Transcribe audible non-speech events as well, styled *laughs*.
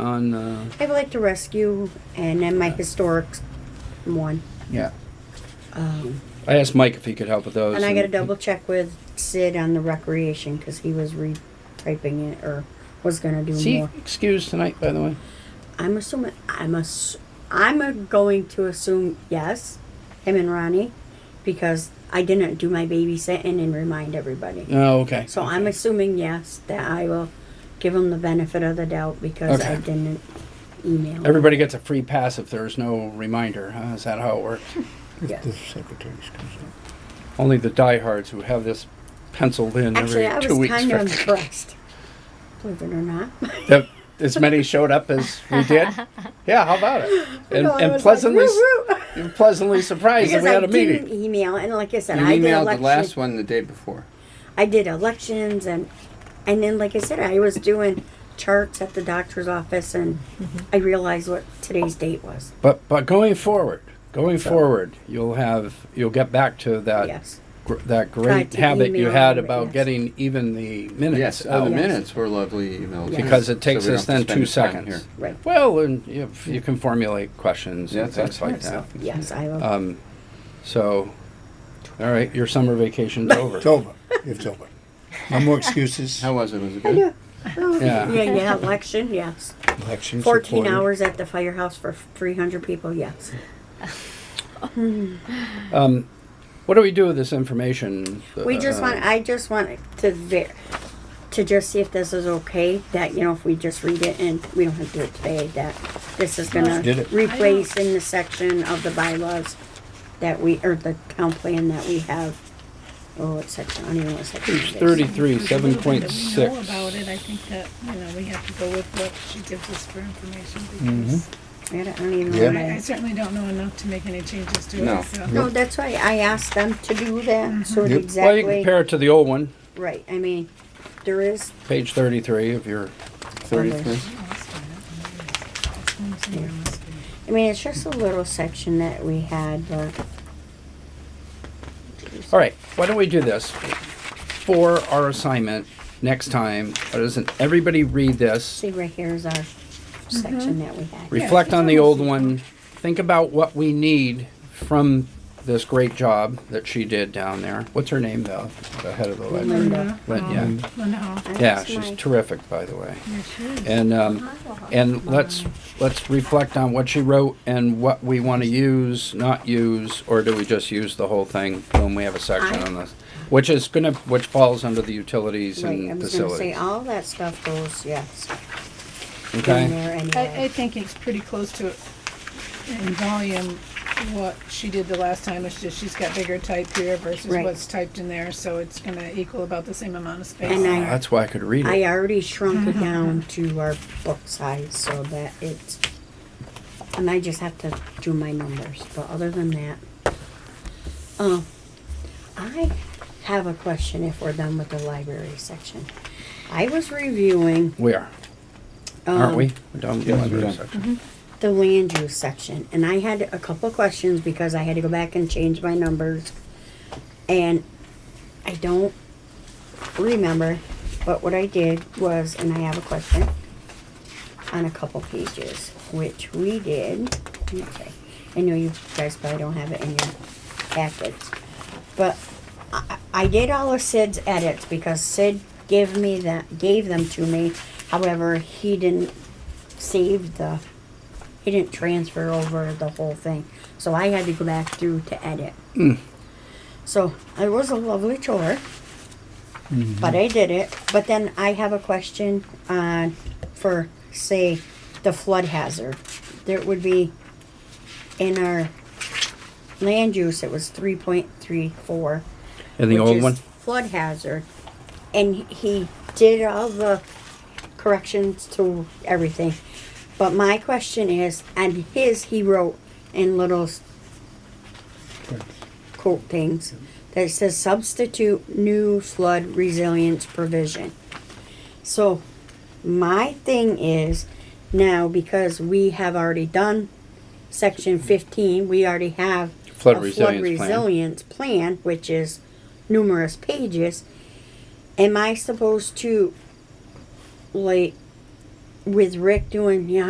on, uh, I'd like to rescue and then my historic one. yeah. Um, I asked Mike if he could help with those. and I gotta double check with Sid on the recreation, cause he was retyping it or was gonna do Is he more. excused tonight, by the way? I'm assuming, I'm ass- I'm uh, going to assume yes, him and Ronnie, because I didn't do my babysitting and remind everybody. Oh, okay. So I'm assuming yes, that I will give him the benefit of the doubt because I Okay. didn't email. him. Everybody gets a free pass if there's no reminder, huh? Is that how it *laughs* works? Yeah. The secretary's concerned. Only the diehards who have this penciled in Actually, I every two was weeks. kind of for- impressed, believe it or not. *laughs* *laughs* that as many showed up as we did. Yeah, how about *laughs* it? And, No, I and was like, pleasantly, s- "Woo, woo." you're *laughs* pleasantly surprised that Because we had I a meeting. didn't email, and like I said, You I did emailed the last elections. one the day before. I did elections, and and then like I said, I was doing charts at the doctor's office, and I realized what today's date was. But but going forward, going forward, you'll have you'll get back to Uh, that Yes, gr- that great to habit you email had them, about yes. getting even the minutes. Yes, out. oh, the Yes. minutes were lovely emails. Yes. Because it So takes we don't us have then to two spend time seconds. here. right. Well, and if you can formulate questions Yeah, and things that's like right. that. Yes, I will. Um, so, all right, your summer vacation's over. It's over. It's over. No more excuses. How was it? Was it I know. good? Oh, Yeah. *laughs* yeah, yeah, election, yes. Election Fourteen supported. hours at the firehouse for three hundred people, yes. Um, what do we do with this information? We just Uh, want, I just want to ver, to just see if this is okay, that, you know, if we just read it and we don't have to do it today, that this is gonna Did it. replace in the section of the bylaws that we, or the town plan that we have. Oh, what section, I don't even know what section it Page is. thirty-three, There's a seven little bit point that six. We know about it, I think that, you know, we have to go with what she gives us for information because Mm-hmm. I don't- I don't even know Yeah. what I I it is. certainly don't know enough to make any changes to No. it, so. No, that's why I asked them to do that, so Well, it Yep. you exactly, compare it to the old one, right, I mean, there is, page thirty-three of your, Thirty-three. Oh, that's fine. It's going somewhere else. I mean, it's just a little section that we had, but. all right, why don't we do this? For our assignment next time, why doesn't everybody read this? See, right here is our section that we had. Reflect on the old one, think about what we need from this great job that she did down there. What's her name though, the head of the library? Linda, Lin- um, yeah. Linda Hall. Yeah, That's she's my- terrific, by the way. Yeah, she is. And, um, and let's, let's reflect on what she wrote and what we want to use, not use, or do we just use the whole thing? Boom, we have a section I- on this, which is gonna, which falls under the utilities Right, I and was gonna say, uh, facilities. all that stuff goes, yes, in Okay, there I, I anyway. think it's pretty close to, in volume, what she did the last time, it's just she's got bigger type here versus Right. what's typed in there, so it's gonna equal about the same amount of space. And I- that's why I could read I uh, it. already shrunk it down to our book size so that it's, and I just have to do my numbers, but other than that. Um, I have a question if we're done with the library section. I was reviewing. We are, um, aren't we? We're done with the yes, we're library done. section. the land use section, and I had a couple of questions because I had to go back and change my numbers. And I don't remember, but what I did was, and I have a question on a couple pages, which we did. Okay, I know you guys probably don't have it in your packets, but I, I did all of Sid's edits because Sid gave me that gave them to me. However, he didn't save the he didn't transfer over the whole thing. So I had to go back through to edit. So it was a lovely chore. But I did it. But then I have a question on for say the flood hazard. There would be in our land use it was three point three four And the which old is one? Flood hazard. And he did all the corrections to everything. But my question is, and his he wrote in little s- quote things that says substitute new flood resilience provision. So my thing is now because we have already done section fifteen, we already have Flood a resilience plan. resilience plan, which is numerous pages. Am I supposed to like with Rick doing you know,